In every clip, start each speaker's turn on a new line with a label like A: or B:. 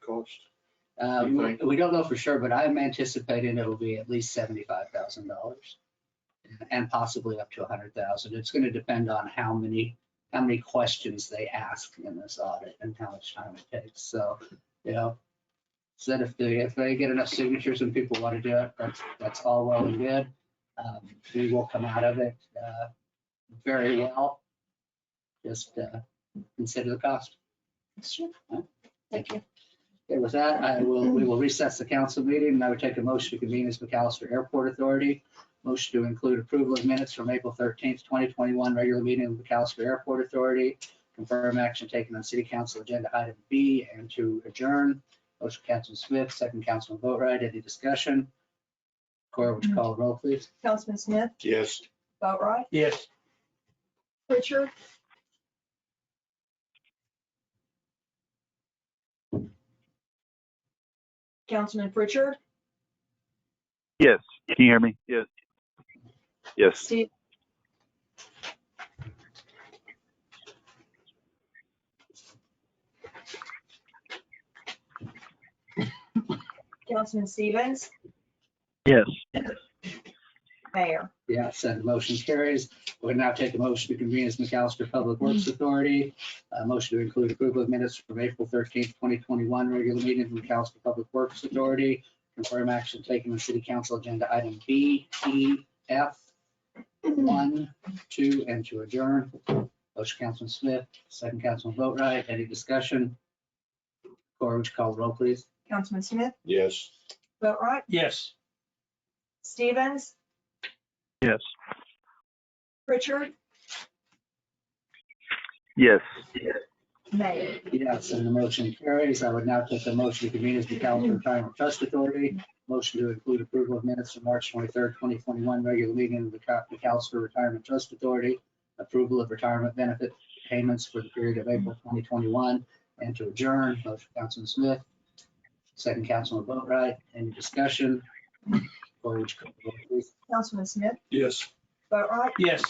A: cost?
B: Uh,
A: Do you
B: we
A: think?
B: we don't know for sure, but I'm anticipating it'll be at least seventy-five thousand dollars. And possibly up to a hundred thousand. It's gonna depend on how many, how many questions they ask in this audit and how much time it takes, so, you know. Said if they, if they get enough signatures and people wanna do it, that's, that's all well and good. Um, we will come out of it, uh, very well. Just, uh, consider the cost.
C: Sure.
B: Huh?
C: Thank you.
B: Okay, with that, I will, we will recess the council meeting and I would take a motion to convene as McAllister Airport Authority. Motion to include approval of minutes from April thirteenth, twenty twenty-one, regular meeting of McAllister Airport Authority. Confirm action taken on city council agenda item B and to adjourn. Motion Councilman Smith, second Councilman Boatright, any discussion? Cora, would you call the roll, please?
C: Councilman Smith,
A: Yes.
C: Boatright,
D: Yes.
C: Pritchard. Councilman Pritchard,
E: Yes. Can you hear me? Yes. Yes.
C: Steve, Councilman Stevens,
E: Yes.
C: Mayor.
B: Yes, and the motion carries. We now take a motion to convene as McAllister Public Works Authority. A motion to include approval of minutes from April thirteenth, twenty twenty-one, regular meeting of McAllister Public Works Authority. Confirm action taken on city council agenda item B, E, F,
C: Mm-hmm.
B: one, two, and to adjourn. Motion Councilman Smith, second Councilman Boatright, any discussion? Cora, would you call the roll, please?
C: Councilman Smith,
A: Yes.
C: Boatright,
D: Yes.
C: Stevens,
E: Yes.
C: Pritchard,
E: Yes.
C: Mayor.
B: Yes, and the motion carries. I would now take the motion to convene as the Calendar Retirement Trust Authority. Motion to include approval of minutes from March twenty-third, twenty twenty-one, regular meeting of the Cal- the Calendar Retirement Trust Authority. Approval of retirement benefit payments for the period of April twenty twenty-one and to adjourn. Motion Councilman Smith. Second Councilman Boatright. Any discussion? Or would you call the roll, please?
C: Councilman Smith,
A: Yes.
C: Boatright,
D: Yes.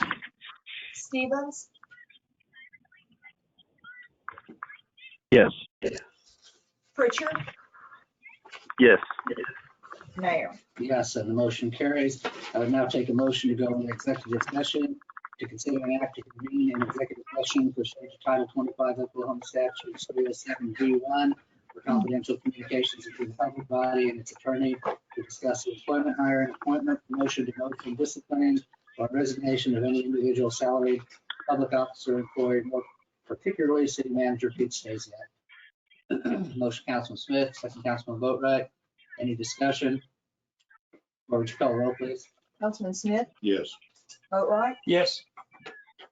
C: Stevens,
E: Yes.
C: Pritchard,
E: Yes.
C: Mayor.
B: Yes, and the motion carries. I would now take a motion to go into executive session to consider an act to convene an executive session pursuant to Title 25 Oklahoma Statute 307 d one for confidential communications between the public body and its attorney to discuss the employment, hiring, appointment, promotion, demotion, disciplining, or resignation of any individual salaried public officer, employee, more particularly city manager Pete Stasiak. Motion, Councilman Smith, second Councilman Boatright. Any discussion? Or would you call the roll, please?
C: Councilman Smith,
A: Yes.
C: Boatright,
D: Yes.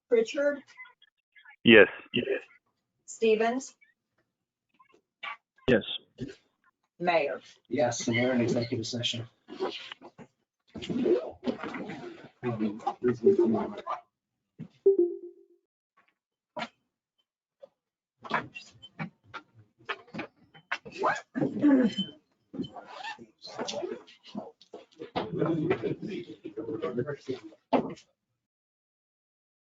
C: Pritchard,
E: Yes.
C: Stevens,
E: Yes.
C: Mayor.
B: Yes, and we're in executive session.